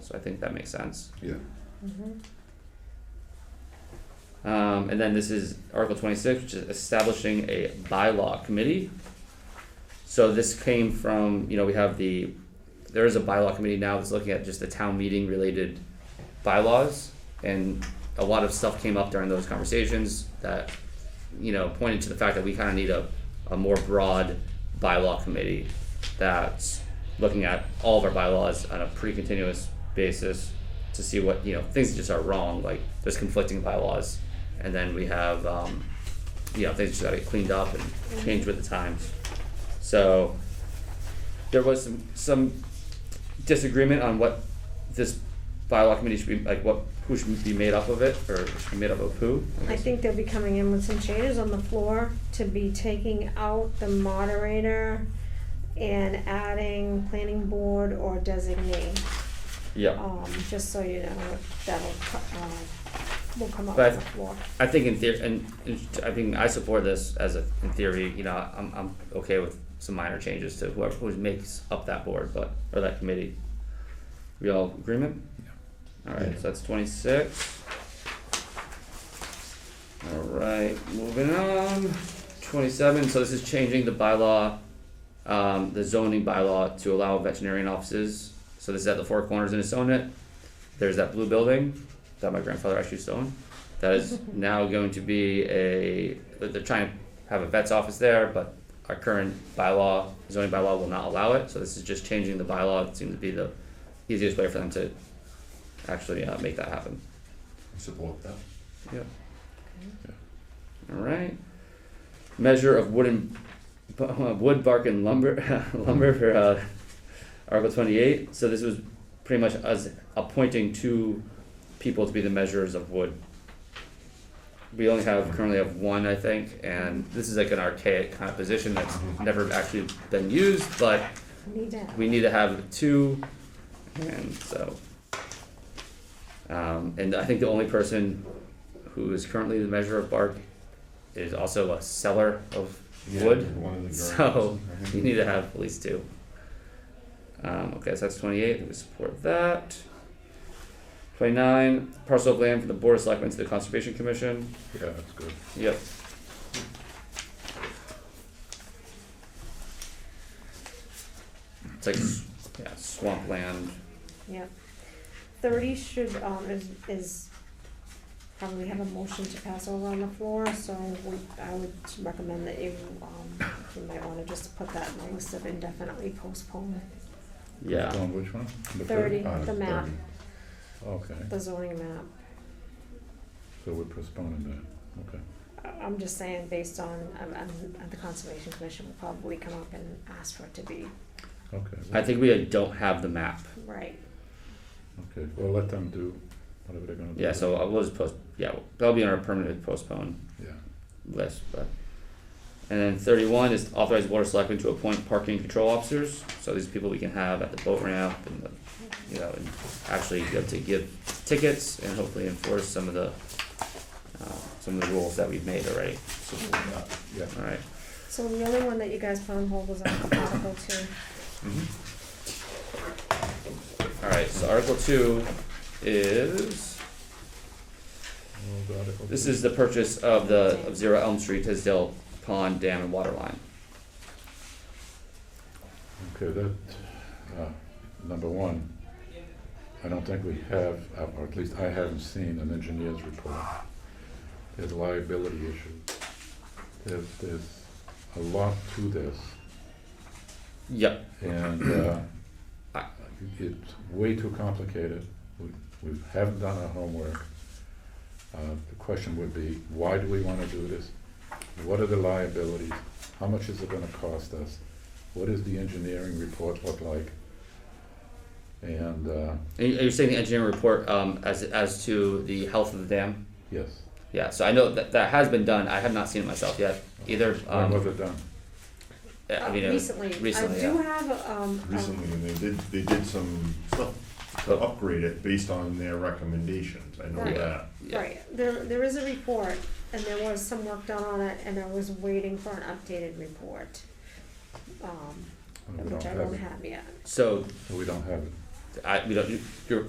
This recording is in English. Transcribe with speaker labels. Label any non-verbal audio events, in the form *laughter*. Speaker 1: So I think that makes sense.
Speaker 2: Yeah.
Speaker 1: Um, and then this is Article twenty-six, which is establishing a bylaw committee. So this came from, you know, we have the, there is a bylaw committee now that's looking at just the town meeting related bylaws. And a lot of stuff came up during those conversations that, you know, pointed to the fact that we kinda need a, a more broad bylaw committee that's looking at all of our bylaws on a pretty continuous basis to see what, you know, things that just are wrong, like there's conflicting bylaws. And then we have, um, you know, things just gotta get cleaned up and changed with the times. So there was some some disagreement on what this bylaw committee should be like what who should be made up of it or should be made up of who.
Speaker 3: I
Speaker 1: guess.
Speaker 3: think they'll be coming in with some changes on the floor to be taking out the moderator and adding planning board or designate,
Speaker 1: Yeah.
Speaker 3: um, just so you know, that'll, co- um, will come up
Speaker 1: But-
Speaker 3: on the floor.
Speaker 1: I think in theory, and, and I think I support this as a in theory. You know, I'm I'm okay with some minor changes to whoever who makes up that board, but or that committee. We all agreement? All right, so that's twenty six. All right, moving on. Twenty seven. So this is changing the bylaw, um, the zoning bylaw to allow veterinarian offices. So this is at the Four Corners in Asonet. There's that blue building that my grandfather actually used to own. That is now going to be a. They're trying to have a vet's office there, but our current bylaw, zoning bylaw, will not allow it. So this is just changing the bylaw. It seems to be the easiest way for them to actually uh, make that happen.
Speaker 2: Support that.
Speaker 1: Yep. All right. Measure of wooden, *laughs* bu- uh, wood, bark, and lumber, *laughs* lumber for uh, Article twenty-eight. So this was pretty much us appointing two people to be the measurers of wood. We only have currently have one, I think, and this is like an archaic kind of position that's never actually been used, but
Speaker 3: Need that.
Speaker 1: we need to have two, and so. Um, and I think the only person who is currently the measure of bark is also a seller of wood.
Speaker 2: One of the girls.
Speaker 1: So you need to have at least two. Um, okay, so that's twenty-eight, we support that. Twenty-nine, parcel of land from the Board of Selectmen to the Conservation Commission,
Speaker 2: Yeah, that's good.
Speaker 1: yep. It's like, s- yeah, swampland,
Speaker 3: Yep. Thirty should, um, is, is, probably have a motion to pass over on the floor, so we, I would recommend that you, um, you might wanna just put that in the list of indefinitely postponed,
Speaker 1: yeah.
Speaker 2: On which one? The
Speaker 3: Thirty,
Speaker 2: Ah,
Speaker 3: the map.
Speaker 2: 30. Okay,
Speaker 3: the zoning map.
Speaker 2: so we're postponing that, okay.
Speaker 3: I- I'm just saying, based on, um, um, the Conservation Commission will probably come up and ask for it to be
Speaker 1: I
Speaker 2: Okay,
Speaker 1: think we don't have the map.
Speaker 3: right.
Speaker 2: okay, well, let them do whatever they're gonna do.
Speaker 1: Yeah, so we'll just post. Yeah, that'll be on our permanent postpone
Speaker 2: Yeah,
Speaker 1: list. But and then thirty-one is authorize board of selectmen to appoint parking control officers. So these people we can have at the boat ramp and the, you know, and actually get to give tickets and hopefully enforce some of the uh, some of the rules that we've made already.
Speaker 2: support that, yeah.
Speaker 1: All right.
Speaker 3: So the only one that you guys put on hold was Article Two.
Speaker 1: Mm-hmm. All right. So Article Two is.
Speaker 2: Well, the article-
Speaker 1: This is the purchase of the, of Zero Elm Street, Tisdale Pond Dam and Water Line.
Speaker 2: Okay, that, uh, number one, I don't think we have, uh, or at least I haven't seen an engineer's report. There's liability issues. There's, there's a lot to this,
Speaker 1: Yep,
Speaker 2: and, uh,
Speaker 1: I-
Speaker 2: it's way too complicated. We, we haven't done our homework. Uh, the question would be, why do we wanna do this? What are the liabilities? How much is it gonna cost us? What does the engineering report look like? And, uh,
Speaker 1: and you- you're saying the engineering report, um, as, as to the health of the dam?
Speaker 2: yes,
Speaker 1: Yeah, so I know that, that has been done, I have not seen it myself yet, either,
Speaker 2: when was
Speaker 1: um,
Speaker 2: it done?
Speaker 1: I mean,
Speaker 3: Uh,
Speaker 1: it was-
Speaker 3: Recently, I
Speaker 1: recently,
Speaker 3: do
Speaker 1: yeah.
Speaker 3: have, um, a-
Speaker 4: recently, and they did, they did some stuff to upgrade it based on their recommendations, I know
Speaker 3: Right.
Speaker 4: that.
Speaker 1: yeah.
Speaker 3: right, there, there is a report, and there was some work done on it, and I was waiting for an updated report. Um,
Speaker 2: We
Speaker 3: which
Speaker 2: don't
Speaker 3: I
Speaker 2: have
Speaker 3: don't
Speaker 2: it.
Speaker 3: have yet.
Speaker 1: So,
Speaker 2: We don't have it.
Speaker 1: I, we don't, you're,